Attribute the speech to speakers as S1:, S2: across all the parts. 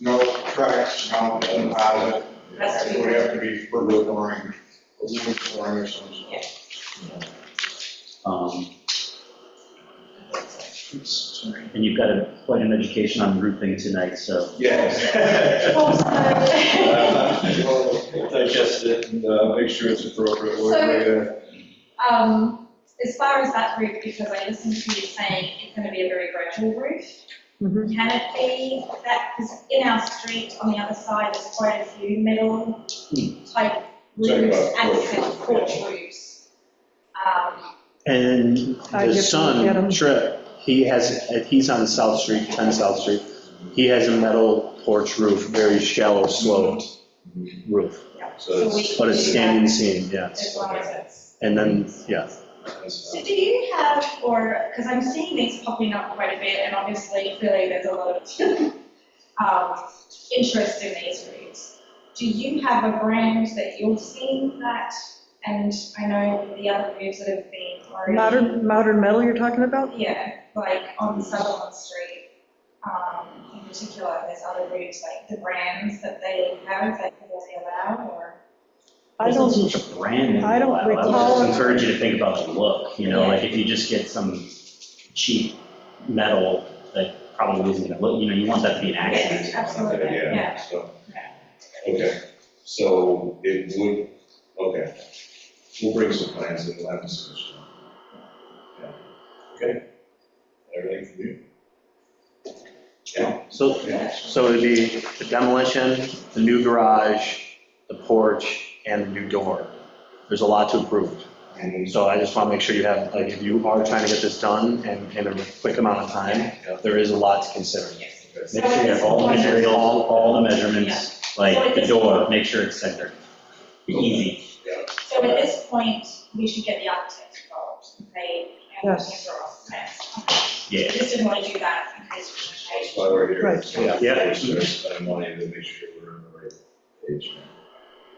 S1: no tracks, no deposit.
S2: That's
S1: It would have to be further flooring, aluminum flooring or something.
S3: Um, And you've got a- quite an education on roofing tonight, so
S1: Yes.
S4: Digest it and uh, make sure it's appropriate. where
S2: Um, as far as that roof, because I listened to you saying it's gonna be a very gradual roof,
S5: Mhm.
S2: can it be that, because in our street on the other side, there's quite a few metal type
S4: Talking
S2: roofs,
S4: about porch
S2: accent
S4: roof,
S2: porch roofs. Um,
S6: And
S5: I
S6: the
S5: get- get
S6: son,
S5: 'em.
S6: Trip, he has, he's on South Street, 10 South Street. He has a metal porch roof, very shallow sloped roof,
S4: So
S2: so we
S4: it's,
S2: can
S6: but
S2: do
S6: it's standing
S2: that
S6: seam, yes.
S2: As long as it's.
S6: And then, yeah,
S4: it's,
S2: So do you have, or, because I'm seeing these popping up quite a bit, and obviously, clearly, there's a lot of um, interest in these routes. Do you have a brand that you're seeing that, and I know the other routes that have been already.
S5: Modern, modern metal you're talking about?
S2: Yeah, like on Sutherland Street, um, in particular, there's other routes, like the brands that they have, that they allow, or.
S5: I
S3: there's not
S5: don't,
S3: so much a brand. in
S5: I don't
S3: Blackwell. I would
S5: recall-
S3: just encourage you to think about the look, you know,
S2: Yeah.
S3: like if you just get some cheap metal that probably isn't gonna look, you know, you want that to be an accent.
S2: Yes, absolutely,
S4: uh, yeah,
S2: yeah.
S4: so. Okay, so it would, okay. We'll bring some plans and we'll have this discussion. Yeah. Okay. Everything from you? Yeah,
S6: so,
S4: yeah.
S6: so it'd be the demolition, the new garage, the porch, and the new door. There's a lot to approve.
S4: And
S6: So I just want to make sure you have, like, if you are trying to get this done and in a quick amount of time, there is a lot to consider.
S3: Make sure you have all the materials, all, all the measurements, like the door, make sure it's centered. Be easy.
S2: So at this point, we should get the architect involved, and they, and the
S5: Yes.
S2: draw off plans. I
S3: Yeah.
S2: Just didn't want to do that in case. we
S4: That's why we're here.
S5: Right.
S6: Yeah.
S4: Sort of spend money to make sure we're on the right page.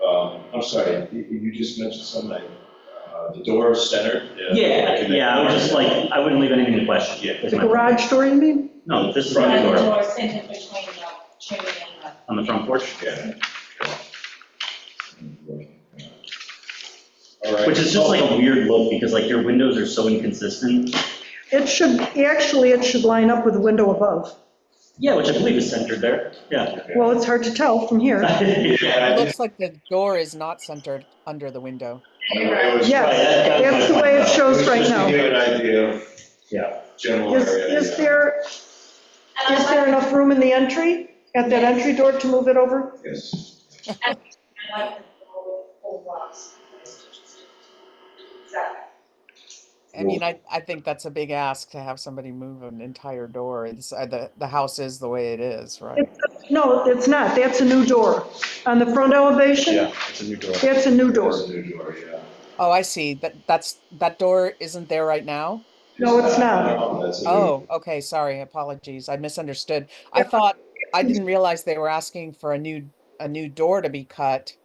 S4: Um, I'm sorry, you, you just mentioned something, uh, the door is centered.
S3: Yeah, yeah, I would just like, I wouldn't leave anything to question.
S4: Yeah.
S3: Is
S5: the
S3: my-
S5: garage door, you mean?
S3: No, this is my
S2: And the
S3: door,
S2: door centered between the chimney and the.
S3: on the front porch.
S4: Yeah. All right.
S3: Which is just like a weird look, because like your windows are so inconsistent.
S5: It should, actually, it should line up with the window above.
S3: Yeah, which I believe is centered there, yeah.
S5: Well, it's hard to tell from here.
S4: Yeah,
S7: It
S4: I
S7: looks like the door is not centered under the window.
S4: It was-
S5: Yes, that's the way it shows right now.
S4: Just to give an idea of
S3: Yeah.
S4: general
S5: Is,
S4: area.
S5: is there,
S2: And
S5: is
S2: I
S5: there
S2: like,
S5: enough room in the entry, at that entry door to move it over?
S4: Yes.
S2: I like the door with all glass. Exactly.
S7: I mean, I, I think that's a big ask to have somebody move an entire door. It's, uh, the, the house is the way it is, right?
S5: No, it's not, that's a new door. On the front elevation,
S6: Yeah, it's a new door.
S5: that's a new door.
S4: There's a new door, yeah.
S7: Oh, I see. That, that's, that door isn't there right now?
S5: No, it's not.
S4: No, that's a new-
S7: Oh, okay, sorry, apologies. I misunderstood. I thought, I didn't realize they were asking for a new, a new door to be cut,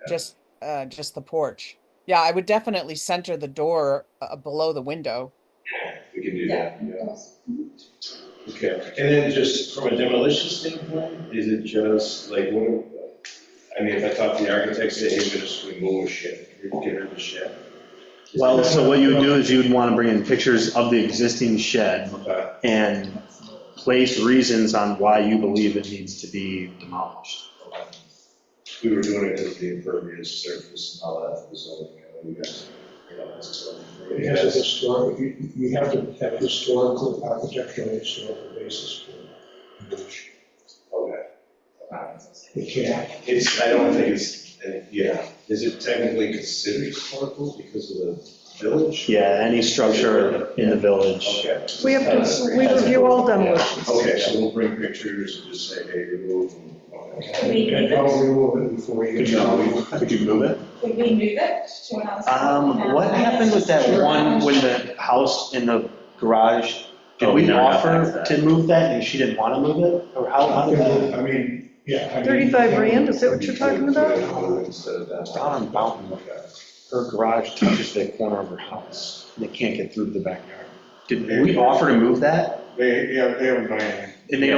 S4: Yeah.
S7: just, uh, just the porch. Yeah, I would definitely center the door, uh, below the window.
S4: We can do that, yeah. Okay, and then just from a demolition standpoint, is it just like, what, I mean, if I talk to the architects, they hey, we're just remove a shed, get rid of the shed.
S6: Well, so what you would do is you'd want to bring in pictures of the existing shed
S4: Okay,
S6: and place reasons on why you believe it needs to be demolished.
S4: okay. We were doing it because the impervious surface and all that was zoning, you know, you guys, you know, that's zoning.
S1: It has a historic, you, you have to have historical, architectural, historical basis for it.
S4: Okay.
S1: You can't,
S4: It's, I don't think it's, yeah, is it technically considered historical because of the village?
S6: Yeah, any structure in the village.
S4: Okay.
S5: We have to, we review all demolition.
S4: Okay, so we'll bring pictures and just say, hey, remove. them.
S2: Could
S4: Okay.
S2: we
S1: and
S2: move it,
S1: don't remove it before you.
S6: Could you move, could you move it?
S2: could we move it to another? side?
S6: Um, what happened with that one, when the house in the garage, did
S3: Oh, we
S6: we
S3: never got back to
S6: offer
S3: that.
S6: to move that and she didn't want to move it? Or how, how did that?
S1: I mean, yeah. I mean-
S5: 35 grand, is that what you're talking about? Ah.
S4: Instead of that.
S6: Down on Mountain, her garage touches the corner of her house. They can't get through to the backyard. Did we offer to move that?
S1: They, yeah, they haven't done anything.
S6: And they